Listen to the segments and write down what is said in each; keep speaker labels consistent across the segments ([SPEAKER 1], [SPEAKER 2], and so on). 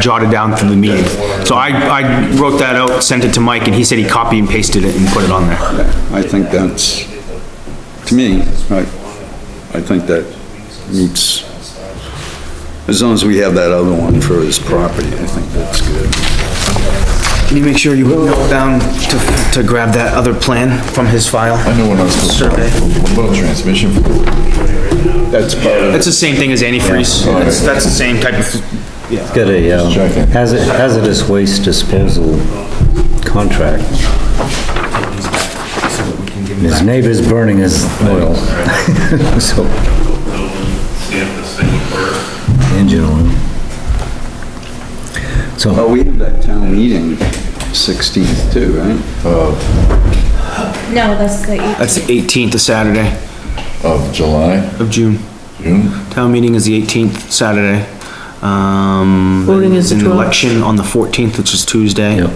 [SPEAKER 1] jotted down through the meeting. So I, I wrote that out, sent it to Mike, and he said he copied and pasted it and put it on there.
[SPEAKER 2] I think that's, to me, I, I think that meets, as long as we have that other one for his property, I think that's good.
[SPEAKER 1] Can you make sure you note down to, to grab that other plan from his file?
[SPEAKER 3] I know what I was supposed to
[SPEAKER 1] Survey.
[SPEAKER 3] do. What about transmission fluid?
[SPEAKER 2] That's part of.
[SPEAKER 1] That's the same thing as antifreeze. That's, that's the same type of,
[SPEAKER 4] It's got a um,
[SPEAKER 3] checking.
[SPEAKER 4] hazard- hazardous waste disposal contract. His neighbor's burning his oil. So, engine oil. So,
[SPEAKER 2] Well, we have that town meeting 16th too, right?
[SPEAKER 5] No, that's the eight.
[SPEAKER 1] that's the eighteenth of Saturday
[SPEAKER 3] Of July,
[SPEAKER 1] of June.
[SPEAKER 3] June?
[SPEAKER 1] Town meeting is the eighteenth, Saturday. Um,
[SPEAKER 6] Voting is the
[SPEAKER 1] and
[SPEAKER 6] 12th.
[SPEAKER 1] Election on the fourteenth, which is Tuesday.
[SPEAKER 4] Yep.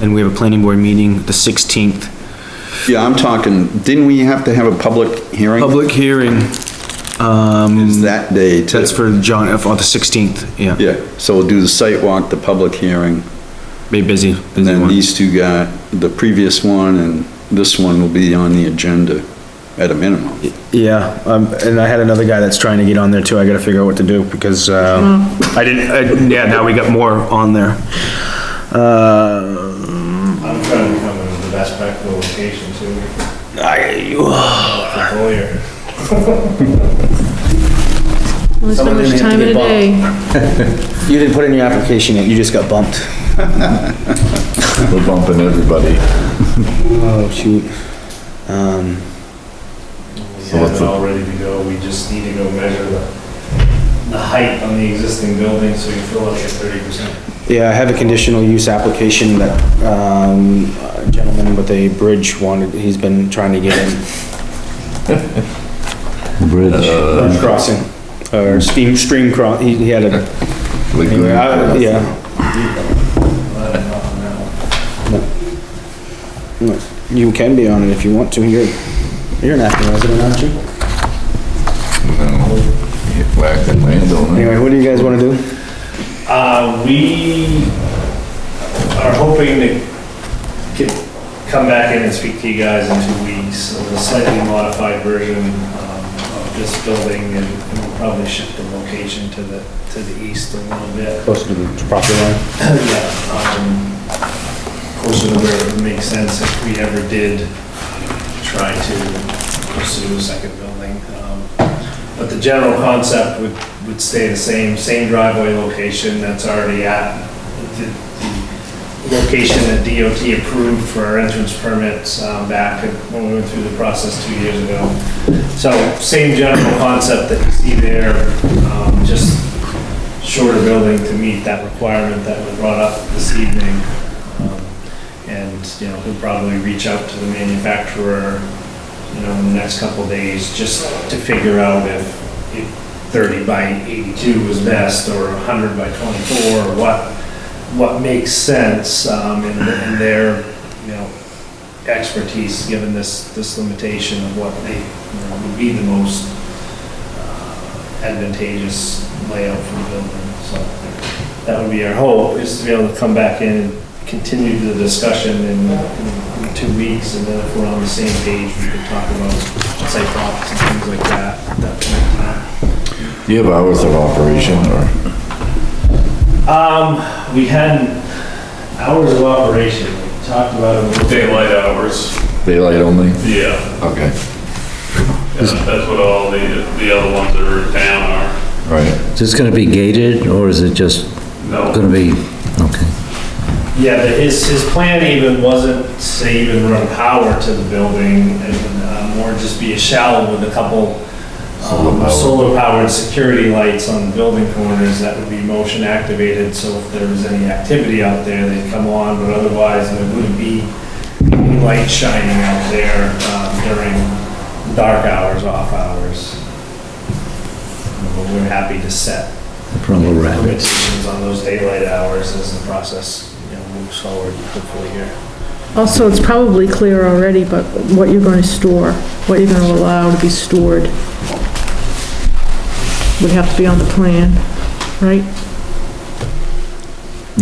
[SPEAKER 1] And we have a planning board meeting the sixteenth.
[SPEAKER 2] Yeah, I'm talking, didn't we have to have a public hearing?
[SPEAKER 1] Public hearing,
[SPEAKER 3] um,
[SPEAKER 2] Is that day too?
[SPEAKER 1] that's for John, F. on the sixteenth, yeah.
[SPEAKER 2] Yeah, so we'll do the site walk, the public hearing,
[SPEAKER 1] Be busy,
[SPEAKER 2] and
[SPEAKER 1] busy
[SPEAKER 2] then
[SPEAKER 1] one.
[SPEAKER 2] these two got, the previous one and this one will be on the agenda at a minimum.
[SPEAKER 1] Yeah, um, and I had another guy that's trying to get on there too. I gotta figure out what to do because, um,
[SPEAKER 6] Mm-hmm.
[SPEAKER 1] I didn't, I, yeah, now we got more on there. Uh,
[SPEAKER 7] I'm trying to come in the best practical location too,
[SPEAKER 1] I,
[SPEAKER 7] for lawyer.
[SPEAKER 6] Only so
[SPEAKER 1] Someone
[SPEAKER 6] much
[SPEAKER 1] didn't have to
[SPEAKER 6] time in a
[SPEAKER 1] get
[SPEAKER 6] day.
[SPEAKER 1] you didn't put in your application yet, you just got bumped.
[SPEAKER 3] We're bumping everybody.
[SPEAKER 1] Oh, shoot. Um,
[SPEAKER 7] We have it all ready to go, we just need to go measure the, the height on the existing building so you fill out your thirty percent.
[SPEAKER 1] yeah, I have a conditional use application that, um, a gentleman with a bridge wanted, he's been trying to get in.
[SPEAKER 4] bridge,
[SPEAKER 1] Bridge crossing, or steam, stream cross, he, he had a, anyway, I-
[SPEAKER 3] Lagoon.
[SPEAKER 1] yeah. You can be on it if you want to, you're, you're an acting resident, aren't you?
[SPEAKER 3] Get whacked in landowner.
[SPEAKER 1] Anyway, what do you guys wanna do?
[SPEAKER 7] Uh, we are hoping to get, come back in and speak to you guys in two weeks of a slightly modified version um, of this building and we'll probably shift the location to the, to the east a little bit.
[SPEAKER 1] Closer to the property line.
[SPEAKER 7] Yeah, um, closer to where it would make sense if we ever did try to pursue a second building. Um, But the general concept would, would stay the same, same driveway location that's already at, the the location that DOT approved for our entrance permits um, back when we went through the process two years ago. So same general concept that you see there, um, just shorter building to meet that requirement that was brought up this evening. Um, And, you know, he'll probably reach out to the manufacturer, you know, in the next couple of days, just to figure out if, if 30 by 82 was best, or 100 by 24, or what, what makes sense um, in in their, you know, expertise, given this, this limitation of what they, you know, would be the most advantageous layout for the building, so that would be our hope, is to be able to come back in and continue the discussion in, in two weeks, and then if we're on the same page, we can talk about site blocks and things like that, at that point in time.
[SPEAKER 3] Do you have hours of operation or?
[SPEAKER 7] Um, we had hours of operation, we talked about it.
[SPEAKER 8] Daylight hours,
[SPEAKER 3] Daylight only?
[SPEAKER 8] yeah,
[SPEAKER 3] Okay,
[SPEAKER 8] that's that's what all the, the other ones that are in town are.
[SPEAKER 3] right.
[SPEAKER 4] is this gonna be gated, or is it just
[SPEAKER 8] No.
[SPEAKER 4] gonna be, okay,
[SPEAKER 7] Yeah, but his, his plan even wasn't to even run power to the building, it would uh, more just be a shallow with a couple um,
[SPEAKER 3] Solar power.
[SPEAKER 7] solar powered security lights on the building corners that would be motion activated, so if there was any activity out there, they'd come on, but otherwise there wouldn't be any light shining out there um, during dark hours, off hours. But We're happy to set
[SPEAKER 4] from a rabbit?
[SPEAKER 7] limitations on those daylight hours as the process, you know, moves forward hopefully here.
[SPEAKER 6] Also, it's probably clear already, but what you're going to store, what you're going to allow to be stored would have to be on the plan, right?